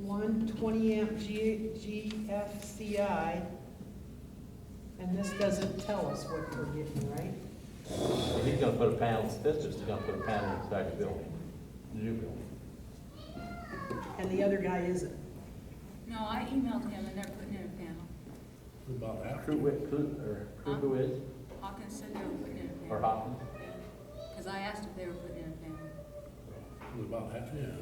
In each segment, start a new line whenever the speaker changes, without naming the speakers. one 20 amp G- GFCI, and this doesn't tell us what we're getting, right?
He's gonna put a panel, this is gonna put a panel inside the building, the new building.
And the other guy isn't.
No, I emailed him and they're putting in a panel.
About that.
Kruger, Kruger, or Kruger is,
Hawkins said they were putting in a
or
panel.
Hopkins?
Because I asked if they were putting in a panel.
About half, yeah.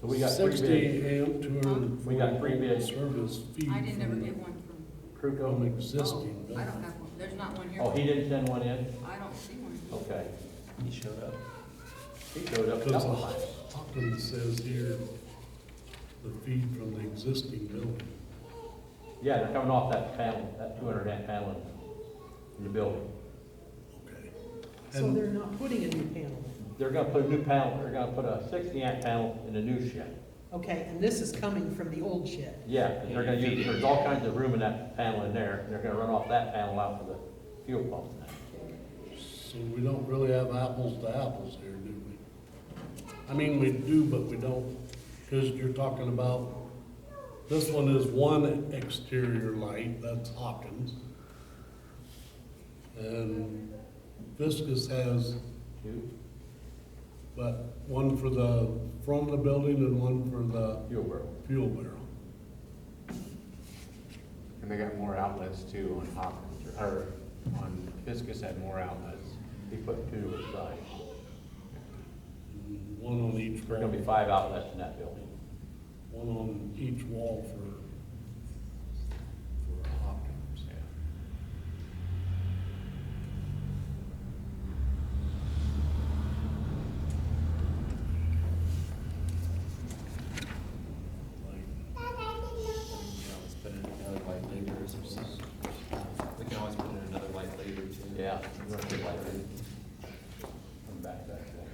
So we got three bids,
Sixty amp, two hundred and
We got three
forty volt
bids.
service fee.
I didn't ever
from
get one from,
From
Kruger,
existing.
oh, I
building.
don't have one. There's not one here.
oh, he didn't send one in,
I don't see one.
okay,
He showed up.
he showed up a
Because
couple of times.
Hopkins says here, the feed from the existing building.
Yeah, they're coming off that panel, that two hundred amp panel in the building.
Okay.
So
And-
they're not putting a new panel in.
They're gonna put a new panel, they're gonna put a sixty amp panel in the new shed.
Okay, and this is coming from the old shed.
Yeah, 'cause they're gonna use, there's all kinds of room in that panel in there, and they're gonna run off that panel out for the fuel pump.
So we don't really have apples to apples here, do we? I mean, we do, but we don't, because you're talking about, this one is one exterior light, that's Hopkins. And Viscus has,
Two
but one for the front of the building and one for the
fuel barrel.
fuel barrel.
And they got more outlets too on Hopkins, or on Fiskus had more outlets.
He put two aside.
and One on each
There's gonna
wall,
be five outlets in that building.
one on each wall for, for Hopkins.
Yeah.
Like,
You know, let's put in another light later or something. We can always put in another light later too.
Yeah. we're gonna put like that. Come back, back, back.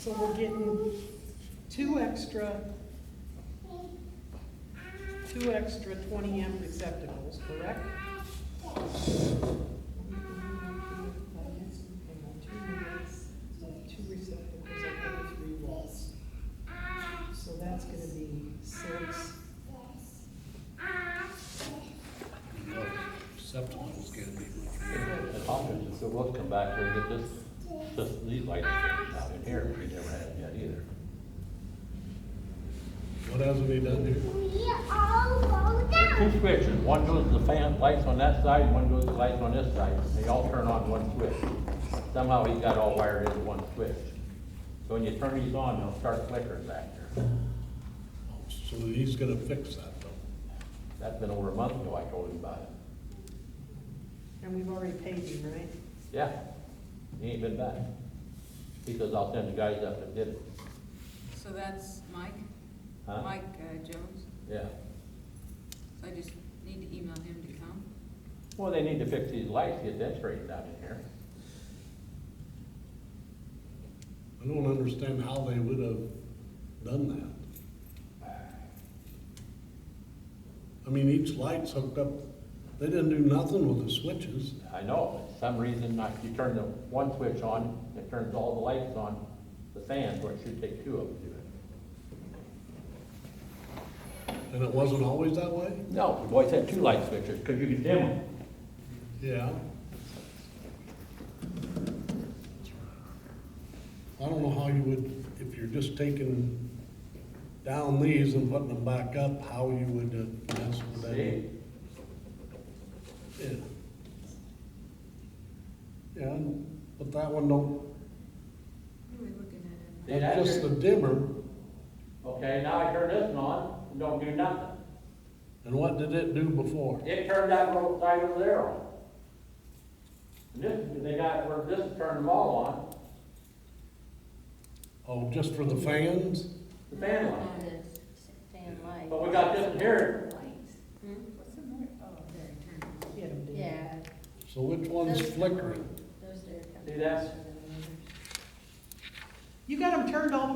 So we're getting two extra, two extra 20 amp receptacles, correct? Two receptacles up on three walls. So that's gonna be six.
Septicals can't be much.
And Hopkins, if it was come back here and get this, this, these lights out in here, we never had it yet either.
What hasn't he done here?
We all go
There's
down.
Two switches, one goes to the fan, lights on that side, one goes to lights on this side, they all turn on one switch. Somehow he's got all wired into one switch. So when you turn these on, they'll start flickering back there.
So he's gonna fix that though.
That's been over a month ago I told him about it.
And we've already paid you, right?
Yeah, he ain't been back. He says, I'll send the guys up that did it.
So that's Mike?
Huh?
Mike uh, Jones?
Yeah.
So I just need to email him to come?
Well, they need to fix these lights, get that straightened out in here.
I don't understand how they would have done that. I mean, each light's hooked up, they didn't do nothing with the switches.
I know, but for some reason, like, you turn the one switch on, it turns all the lights on, the fans, where it should take two of them to do it.
And it wasn't always that way?
No, the boys had two light switches, because you could dim them.
Yeah. I don't know how you would, if you're just taking down these and putting them back up, how you would uh, mess with that.
See?
Yeah. Yeah, but that one don't,
Who are we looking at?
See, that's
that's just the
it.
dimmer,
Okay, now I turn this one on, and don't do nothing.
and what did it do before?
It turned that little light over there on. And this, they got, where this turned them all on,
Oh, just for the fans?
the fan light.
Fan light.
But we got this in here.
What's the matter? Oh, there, turn it on.
He had them, didn't he?
Yeah.
So which one's flickering?
Those are.
See that?
You got them turned all the way